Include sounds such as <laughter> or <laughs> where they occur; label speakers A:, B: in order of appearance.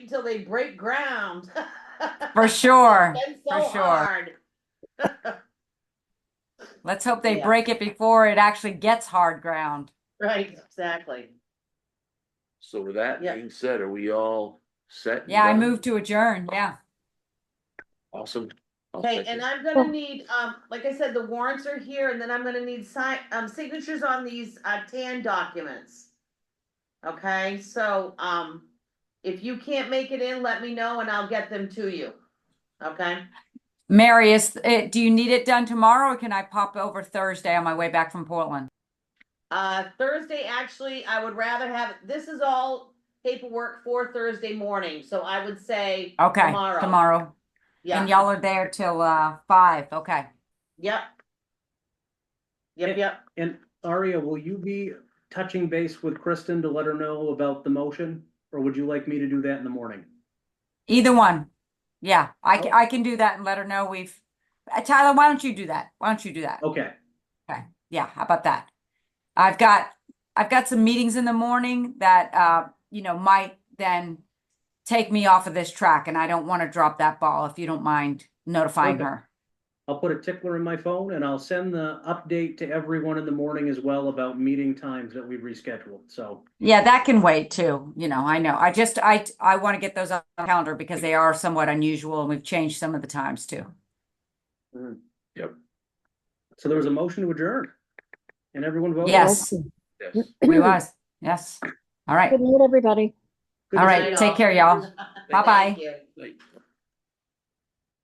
A: till they break ground. <laughs>
B: for sure.
A: Been so
B: sure.
A: hard.
B: Let's hope they
A: Yeah.
B: break it before it actually gets hard ground.
A: Right, exactly.
C: So with that
A: Yeah.
C: being said, are we all set? and
B: Yeah, I
C: done?
B: move to adjourn. Yeah.
C: Awesome. I'll
A: Okay,
C: second.
A: and I'm gonna need, um, like I said, the warrants are here and then I'm gonna need sign, um, signatures on these, uh, tan documents. Okay, so, um, if you can't make it in, let me know and I'll get them to you. Okay,
B: Mary, is it, do you need it done tomorrow or can I pop over Thursday on my way back from Portland?
A: uh, Thursday, actually, I would rather have, this is all paperwork for Thursday morning, so I would say,
B: Okay,
A: Tomorrow.
B: tomorrow. And
A: yeah,
B: y'all are there till uh five. Okay.
A: yep. Yep, yep.
D: And Aria, will you be touching base with Kristen to let her know about the motion? Or would you like me to do that in the morning?
B: Either one. Yeah, I
A: Oh.
B: can, I can do that and let her know we've, Uh, Tyler, why don't you do that? Why don't you do that?
D: Okay,
B: Yeah, how about that? I've got, I've got some meetings in the morning that, uh, you know, might then take me off of this track and I don't want to drop that ball if you don't mind notifying
D: Okay.
B: her.
D: I'll put a tickler in my phone and I'll send the update to everyone in the morning as well about meeting times that we've rescheduled, so.
B: Yeah, that can wait too, you know, I know. I just, I, I want to get those on the calendar because they are somewhat unusual and we've changed some of the times too.
C: Mm-hmm.
D: So there was a motion to adjourn. And everyone voted?
B: Yes,
C: Yes.
B: we was, yes. All right,
E: Good night, everybody.
D: Good
B: all
D: to see
B: right, take care,
A: <laughs>
B: y'all.
A: Thank
B: Bye-bye.
A: you.